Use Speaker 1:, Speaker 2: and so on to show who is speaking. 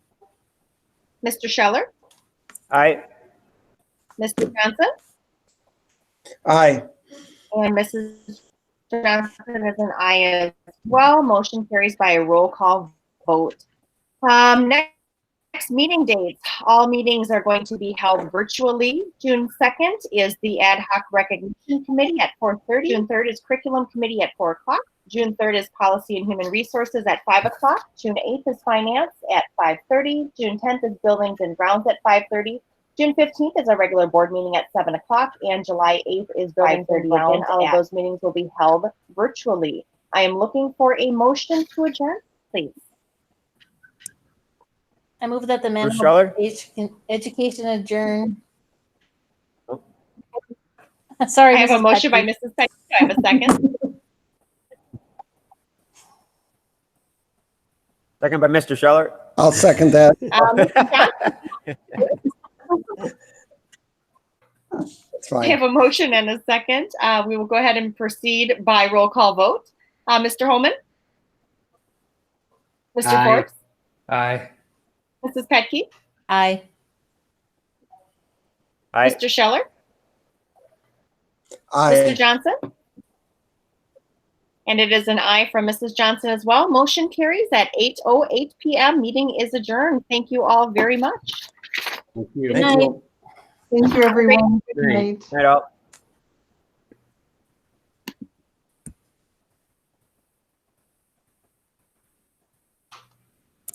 Speaker 1: Mr. Scheller,
Speaker 2: Aye.
Speaker 1: Mr. Johnson,
Speaker 2: Aye.
Speaker 1: and Mrs. Johnson is an aye as well. Motion carries by a roll call vote. Um, next, next meeting dates. All meetings are going to be held virtually. June 2nd is the Ad hoc Recognition Committee at 4:30. June 3rd is Curriculum Committee at 4 o'clock. June 3rd is Policy and Human Resources at 5 o'clock. June 8th is Finance at 5:30. June 10th is Buildings and Grounds at 5:30. June 15th is our regular board meeting at 7 o'clock, and July 8th is building and grounds. All of those meetings will be held virtually. I am looking for a motion to adjourn, please.
Speaker 3: I move that the
Speaker 2: Bruce
Speaker 3: minimum
Speaker 2: Scheller?
Speaker 3: edu- education adjourn.
Speaker 2: Oh.
Speaker 3: Sorry.
Speaker 1: I have a
Speaker 3: Mrs.
Speaker 1: motion by
Speaker 3: Petke.
Speaker 1: Mrs. Petke. Do I have a second?
Speaker 2: Second by Mr. Scheller.
Speaker 4: I'll second that.
Speaker 1: Um, Mrs. Johnson,
Speaker 4: It's
Speaker 1: I
Speaker 4: fine.
Speaker 1: have a motion and a second. Uh, we will go ahead and proceed by roll call vote. Uh, Mr. Holman? Mr.
Speaker 5: Aye.
Speaker 1: Forbes?
Speaker 5: Aye.
Speaker 1: Mrs. Petke?
Speaker 3: Aye.
Speaker 2: Aye.
Speaker 1: Mr. Scheller? Mr.
Speaker 4: Aye.
Speaker 1: Johnson? And it is an aye from Mrs. Johnson as well. Motion carries at 8:08 PM. Meeting is adjourned. Thank you all very much.
Speaker 4: Thank you.
Speaker 6: Thank you, everyone. Good
Speaker 2: Great.
Speaker 6: night.
Speaker 2: Night all.